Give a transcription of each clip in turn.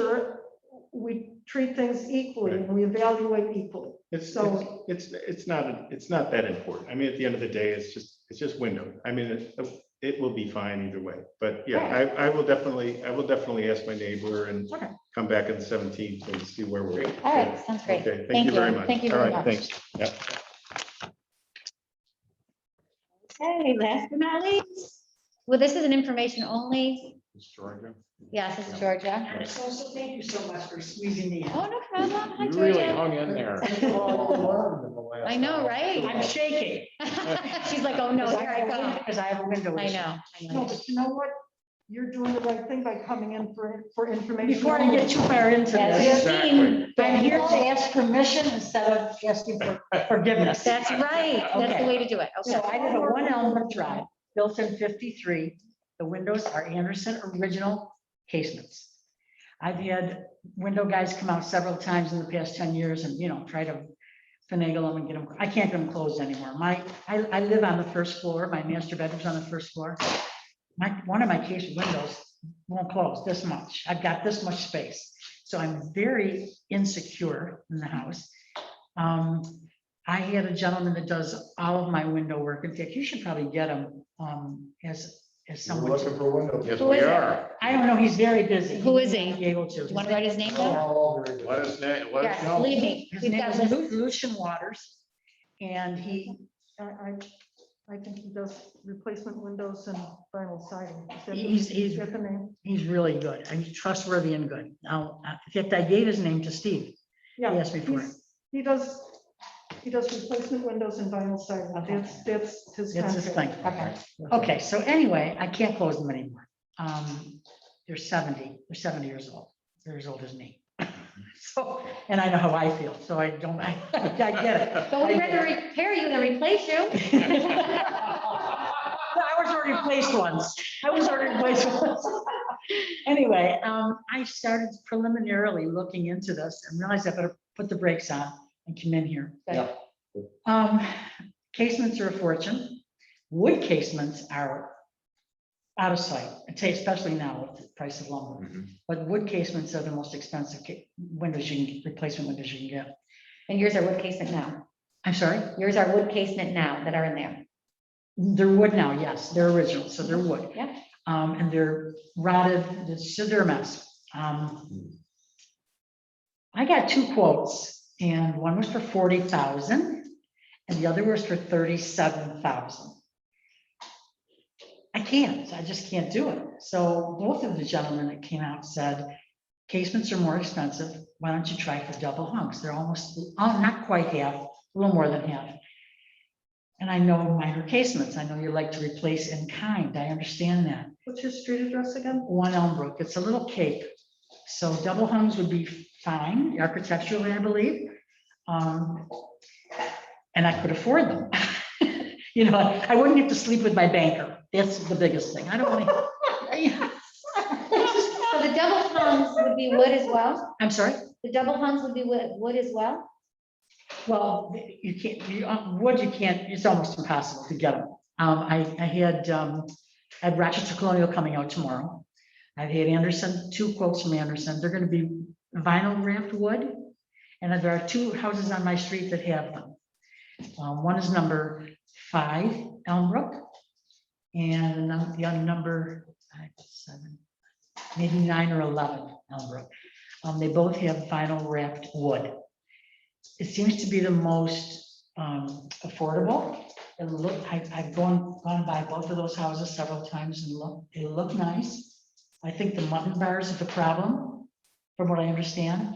sure we treat things equally and we evaluate equally. It's, it's, So- it's, it's not, it's not that important. I mean, at the end of the day, it's just, it's just window. I mean, it, it will be fine either way. But yeah, I, I will definitely, I will definitely ask my neighbor and Okay. come back on the seventeenth and see where we're at. All right, sounds great. Okay, thank you very much. Thank you All very right, much. Thanks. Yep. Okay, last but not least. Well, this is an information only. Yes, this is Georgia. So, so thank you so much for squeezing me in. Oh, no problem. Hi, You really Georgia. hung in there. I I know, right? I'm shaking. She's like, oh, no, Because here I have a go. win- Because I have a window. I issue. know. I No, know. but you know what? You're doing the right thing by coming in for, for information. Before I get too far into As this, you've seen, I'm here to ask permission instead of asking for forgiveness. That's right. That's the Okay. way to do it. Okay. So I live at One Elmwood Drive, built in fifty-three. The windows are Anderson original casements. I've had window guys come out several times in the past ten years and, you know, try to finagle them and get them, I can't get them closed anymore. My, I, I live on the first floor, my master bedroom's on the first floor. My, one of my case windows won't close this much. I've got this much space. So I'm very insecure in the house. Um, I had a gentleman that does all of my window work. In fact, you should probably get him um, as, We're as someone. looking for windows. Yes, Who we is it? are. I don't know, he's very busy. Who is may he? not Be able to. Do you want to write his name They're down? all very good. Let us, na- let us Yes, know. leave me. Oh, His We've name got is this. Lu- Lucian Waters, and he, I, I, I think he does replacement windows and vinyl siding. Is that the- he's, is he's, that the name? he's really good, and he's trustworthy and good. Now, uh, in fact, I gave his name to Steve. He Yeah. asked me for it. he's- He does, he does replacement windows and vinyl siding. Okay. That's, that's his That's his thing. contract. Okay. Okay, so anyway, I can't close them anymore. Um, they're seventy, they're seventy years old. They're as old as me. So, and I know how I feel, so I don't, I, I get it. But we're going to repair you and replace you. I was already placed once. I was already placed once. Anyway, um, I started preliminarily looking into this and realized I better put the brakes on and come in here. Yeah. Um, casements are a fortune. Wood casements are out of sight, especially now with the price of Mm. lumber. Mhm. But wood casements are the most expensive ca- windows you can, replacement windows you can get. And yours are wood casement now. I'm sorry? Yours are wood casement now that are in there. They're wood now, yes, they're original, so they're wood. Yeah. Um, and they're rotted, it's just they're a mess. Um. I got two quotes and one was for forty thousand and the other was for thirty-seven thousand. I can't, I just can't do it. So both of the gentlemen that came out said, casements are more expensive. Why don't you try for double hunks? They're almost, oh, not quite half, a little more than half. And I know minor casements. I know you like to replace in kind. I understand that. What's your street address again? One Elmbrook, it's a little cape. So double hungs would be fine architecturally, I believe. Um, And I could afford them. You know, I wouldn't have to sleep with my banker. That's the biggest thing. I don't want to. So the double hungs would be wood as well? I'm sorry? The double hungs would be wood, wood as well? Well, you can't, you, uh, wood, you can't, it's almost impossible to get them. Um, I, I had, um, I had Rochester Colonial coming out tomorrow. I've had Anderson, two quotes from Anderson. They're gonna be vinyl wrapped wood. And there are two houses on my street that have them. Um, one is number five Elmbrook. And num- the other number, five, seven, maybe nine or eleven Elmbrook. Um, they both have vinyl wrapped wood it seems to be the most um, affordable. It look, I, I've gone, gone by both of those houses several times and look, they look nice. I think the mutton bars are the problem, from what I understand.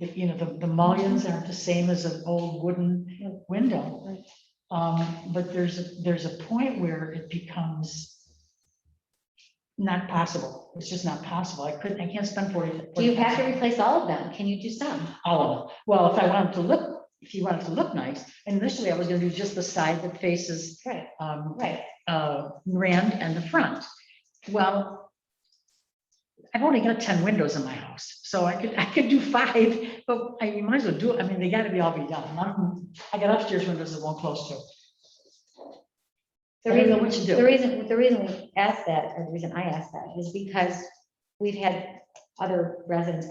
The, you know, the, the mullions aren't the same as an old wooden window. Um, but there's, a- there's a point where it becomes not possible. It's just not possible. I couldn't, I can't spend forty. Do you have to $40,000. replace all of them? Can you do some? All of them. Well, if I wanted to look, if you wanted to look nice, initially I was gonna do just the side that faces Right, um, right. uh, Rand and the front. Well, I've only got ten windows in my house, so I could, I could do five, but I you might as well do, it. I mean, they gotta be all be done. None of them- I got upstairs windows that won't close to. The I don't know reason, what you do. the reason, the reason we asked that, or the reason I asked that is because we've had other residents